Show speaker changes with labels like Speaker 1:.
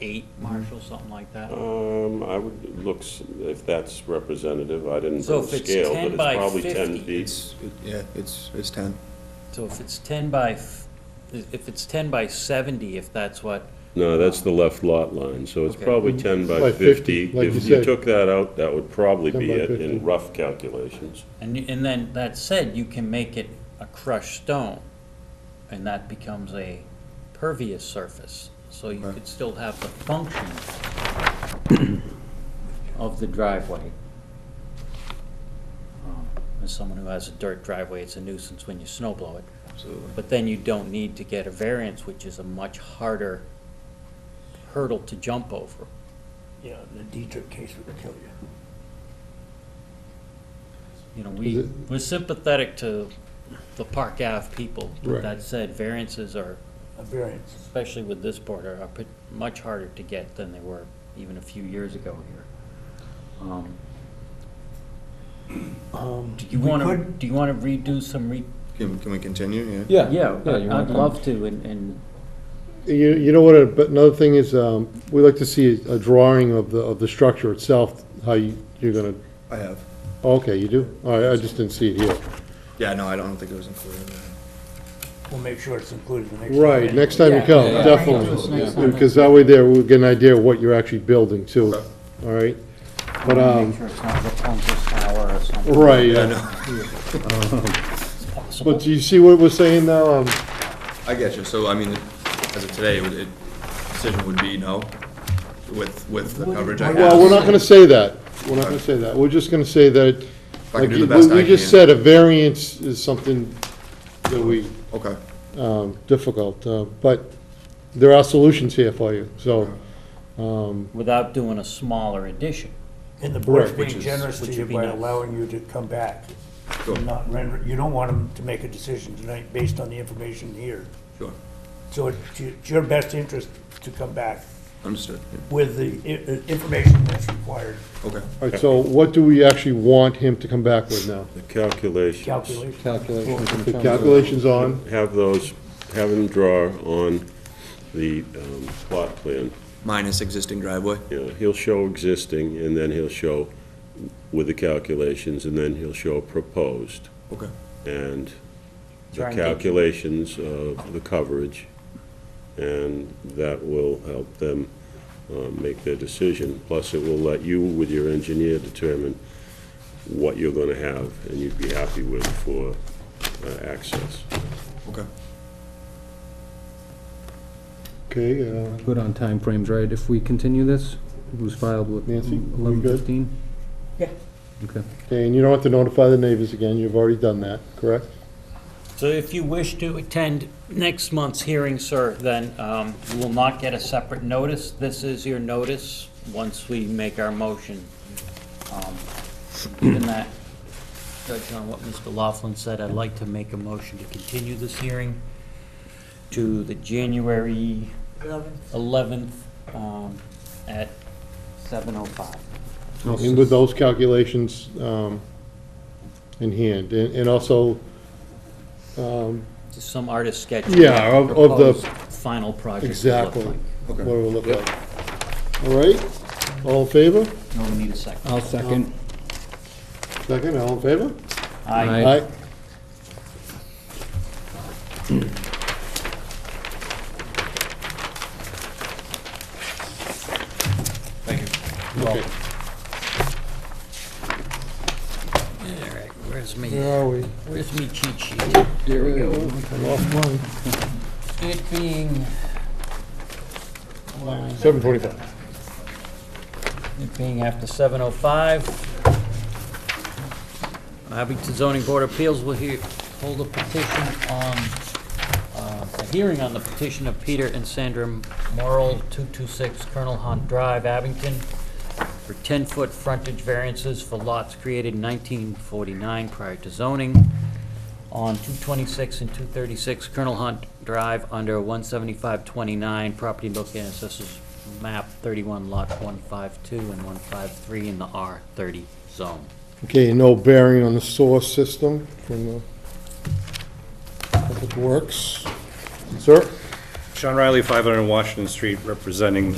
Speaker 1: eight, Marshall, something like that?
Speaker 2: Um, I would, looks, if that's representative, I didn't
Speaker 3: So
Speaker 2: bring
Speaker 3: if
Speaker 2: a
Speaker 3: it's
Speaker 2: scale,
Speaker 3: 10
Speaker 2: but it's
Speaker 3: by
Speaker 2: probably
Speaker 3: 50,
Speaker 2: ten feet.
Speaker 4: It's, it- yeah, it's, it's 10.
Speaker 3: So if it's 10 by, f- if it's 10 by 70, if that's what,
Speaker 2: No, that's the left lot line, so it's
Speaker 3: Okay.
Speaker 2: probably ten by
Speaker 5: By 50,
Speaker 2: fifty.
Speaker 5: like
Speaker 2: If
Speaker 5: you
Speaker 2: you
Speaker 5: said.
Speaker 2: took that out, that would probably
Speaker 5: 10
Speaker 2: be
Speaker 5: by
Speaker 2: it in
Speaker 5: 50.
Speaker 2: rough calculations.
Speaker 3: and, you- and then, that said, you can make it a crushed stone, and that becomes a pervious surface, so you could still have the function of the driveway. Um, As someone who has a dirt driveway, it's a nuisance when you snow blow it.
Speaker 4: Absolutely.
Speaker 3: But then you don't need to get a variance, which is a much harder hurdle to jump over.
Speaker 6: Yeah, the Dietrich case would kill you.
Speaker 3: You know, we,
Speaker 5: Is it-
Speaker 3: we're sympathetic to the Park Ave people. but
Speaker 5: Right.
Speaker 3: That said, variances are,
Speaker 6: A variance.
Speaker 3: especially with this board, are put- much harder to get than they were even a few years ago here. Um, Do Um, you
Speaker 6: we
Speaker 3: want to,
Speaker 6: could-
Speaker 3: do you want to redo some re?
Speaker 4: Can, can we continue? Yeah.
Speaker 5: Yeah. you
Speaker 3: I'd
Speaker 5: wanna come-
Speaker 3: love to, and, and
Speaker 5: You, you know what, uh, but another thing is, um, we like to see a drawing of the, of the structure itself, how you, you're gonna,
Speaker 4: I have.
Speaker 5: okay, you do? All right, I just didn't see it here.
Speaker 4: Yeah, no, I don't think it was included in that.
Speaker 6: We'll make sure it's included the next time.
Speaker 5: Right, next time you
Speaker 3: Yeah.
Speaker 5: come,
Speaker 3: Yeah.
Speaker 5: definitely.
Speaker 3: Yeah.
Speaker 5: Because that way there, we'll get an idea of what you're actually building too, all right? But,
Speaker 3: make
Speaker 5: um,
Speaker 3: sure it's not Rapunzel's Tower or something.
Speaker 5: right, yeah.
Speaker 3: It's
Speaker 5: but
Speaker 3: possible.
Speaker 5: do you see what we're saying now? Um,
Speaker 4: I get you. So, I mean, as of today, it would- it, decision would be no with, with the coverage I have.
Speaker 5: Well, we're not gonna say that, we're not gonna say that, we're just gonna say that,
Speaker 4: I can
Speaker 5: like,
Speaker 4: do the
Speaker 5: we
Speaker 4: best I
Speaker 5: we just
Speaker 4: can.
Speaker 5: said, a variance is something that we
Speaker 4: Okay.
Speaker 5: um, difficult, uh, but there are solutions here for you, so, um,
Speaker 3: Without doing a smaller addition.
Speaker 6: And the board's
Speaker 5: Right,
Speaker 4: which
Speaker 6: being
Speaker 4: is-
Speaker 6: generous to
Speaker 3: which
Speaker 6: you
Speaker 3: would be
Speaker 6: by
Speaker 3: nice.
Speaker 6: allowing you to come back.
Speaker 4: Sure.
Speaker 6: Not render, you don't want them to make a decision tonight based on the information here.
Speaker 4: Sure.
Speaker 6: So it's your- it's your best interest to come back
Speaker 4: Understood. Yeah.
Speaker 6: with the i- i- information that's required
Speaker 4: Okay.
Speaker 5: all right, so what do we actually want him to come back with now?
Speaker 2: The calculations.
Speaker 6: calculation.
Speaker 5: The calculations on,
Speaker 2: Have those, have them draw on the um, plot plan.
Speaker 4: Minus existing driveway.
Speaker 2: Yeah, he'll show existing, and then he'll show with the calculations, and then he'll show proposed,
Speaker 4: Okay.
Speaker 2: and the
Speaker 3: Try and get-
Speaker 2: calculations of the coverage, and that will help them uh, make their decision. Plus, it will let you, with your engineer, determine what you're gonna have, and you'd be happy with for uh, access.
Speaker 4: Okay.
Speaker 5: okay, uh,
Speaker 7: Good on timeframes, right? If we continue this, it was filed with
Speaker 5: Nancy, we
Speaker 7: eleven
Speaker 5: good?
Speaker 7: fifteen?
Speaker 6: Yeah.
Speaker 7: Okay.
Speaker 5: okay, and you don't have to notify the neighbors again, you've already done that, correct?
Speaker 3: So if you wish to attend next month's hearing, sir, then um, you will not get a separate notice. This is your notice, once we make our motion. Um, Given that, judge on what Mr. Laughlin said, I'd like to make a motion to continue this hearing to the January 11th um, at 7:05.
Speaker 5: And with those calculations um, in hand, and and also, um,
Speaker 3: Just some artist sketch.
Speaker 5: Yeah, of- of the-
Speaker 3: proposed Final project. will look
Speaker 5: exactly,
Speaker 3: like.
Speaker 5: what it will look like. All right, all in favor?
Speaker 3: No, we need a second.
Speaker 7: I'll second.
Speaker 5: Second, all in favor?
Speaker 3: Aye.
Speaker 7: Aye.
Speaker 4: Thank you.
Speaker 5: Okay.
Speaker 3: Where's me?
Speaker 5: Where are we?
Speaker 3: Where's me cheat sheet?
Speaker 7: Here we go.
Speaker 5: Lost one.
Speaker 3: It being,
Speaker 5: Seven forty-five.
Speaker 3: it being after seven oh five. Abington zoning board of appeals will hear, hold a petition on, uh, a hearing on the petition of Peter and Sandra Morrell, two-two-six Colonel Hunt Drive, Abington, for ten-foot frontage variances for lots created in nineteen forty-nine prior to zoning. on 226 and 236 Colonel Hunt Drive under 17529, property located in Assessors Map 31, Lot 152 and 153 in the R30 zone.
Speaker 5: Okay, no bearing on the sewer system from the Public Works. Sir?
Speaker 8: Sean Riley, 500 Washington Street, representing